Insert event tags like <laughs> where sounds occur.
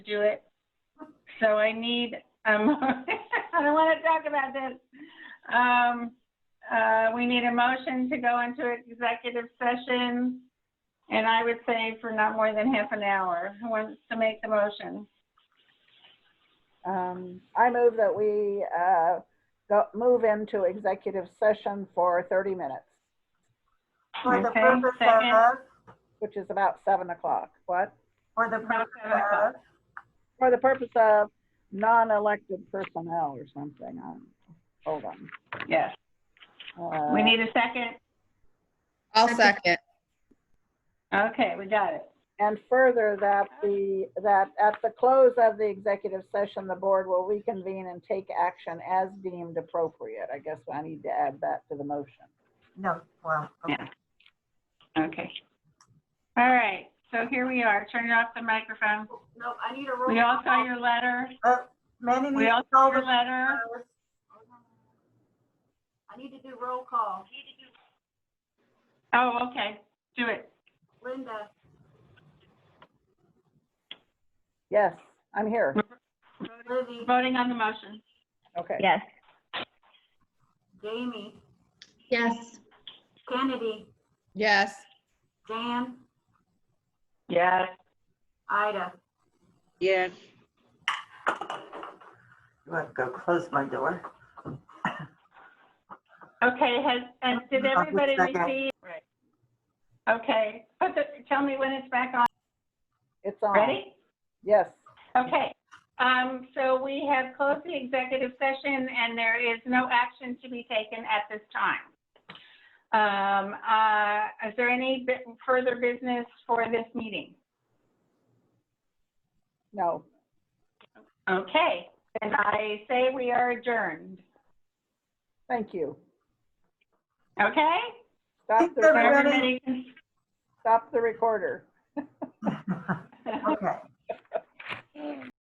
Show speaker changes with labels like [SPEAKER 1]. [SPEAKER 1] do it. So I need, um, <laughs> I don't want to talk about this. Um, uh, we need a motion to go into executive session. And I would say for not more than half an hour. Who wants to make the motion?
[SPEAKER 2] Um, I move that we, uh, go, move into executive session for thirty minutes,
[SPEAKER 3] For the
[SPEAKER 1] Okay,
[SPEAKER 3] purpose
[SPEAKER 1] second.
[SPEAKER 3] of,
[SPEAKER 2] which is about seven o'clock. What?
[SPEAKER 3] for the
[SPEAKER 1] About
[SPEAKER 3] purpose
[SPEAKER 1] seven
[SPEAKER 3] of,
[SPEAKER 1] o'clock.
[SPEAKER 2] For the purpose of non-elected personnel or something. Um, hold on.
[SPEAKER 1] Yes,
[SPEAKER 2] Uh,
[SPEAKER 1] we need a second.
[SPEAKER 4] I'll second.
[SPEAKER 1] Okay, we got it.
[SPEAKER 2] And further, that the, that at the close of the executive session, the board will reconvene and take action as deemed appropriate. I guess I need to add that to the motion.
[SPEAKER 3] no, well, okay.
[SPEAKER 1] Yeah. Okay. All right, so here we are. Turn off the microphone.
[SPEAKER 3] no, I need a roll.
[SPEAKER 1] We all saw your letter.
[SPEAKER 3] Uh, Manny
[SPEAKER 1] We
[SPEAKER 3] needs
[SPEAKER 1] all
[SPEAKER 3] to
[SPEAKER 1] saw
[SPEAKER 3] call
[SPEAKER 1] your
[SPEAKER 3] the.
[SPEAKER 1] letter.
[SPEAKER 3] I need to do roll call.
[SPEAKER 1] Oh, okay, do it.
[SPEAKER 3] Linda,
[SPEAKER 2] Yes, I'm here.
[SPEAKER 3] Libby,
[SPEAKER 1] Voting on the motion.
[SPEAKER 2] Okay.
[SPEAKER 5] Yes.
[SPEAKER 3] Jamie,
[SPEAKER 6] Yes.
[SPEAKER 3] Kennedy,
[SPEAKER 4] Yes.
[SPEAKER 3] Jan,
[SPEAKER 1] Yes.
[SPEAKER 3] Ida.
[SPEAKER 4] Yes.
[SPEAKER 3] You have to go close my door.
[SPEAKER 1] Okay, has, and did
[SPEAKER 3] I'll just
[SPEAKER 1] everybody
[SPEAKER 3] second.
[SPEAKER 1] receive? Right. Okay, put the, tell me when it's back on.
[SPEAKER 2] It's on.
[SPEAKER 1] Ready?
[SPEAKER 2] Yes.
[SPEAKER 1] Okay. Um, so we have closed the executive session and there is no action to be taken at this time. Um, uh, is there any bit- further business for this meeting?
[SPEAKER 2] No.
[SPEAKER 1] Okay, then I say we are adjourned.
[SPEAKER 2] Thank you.
[SPEAKER 1] Okay?
[SPEAKER 2] Stop
[SPEAKER 3] Thanks,
[SPEAKER 2] the,
[SPEAKER 3] everybody.
[SPEAKER 1] Everybody can-
[SPEAKER 2] stop the recorder.
[SPEAKER 3] Okay.
[SPEAKER 1] <laughs>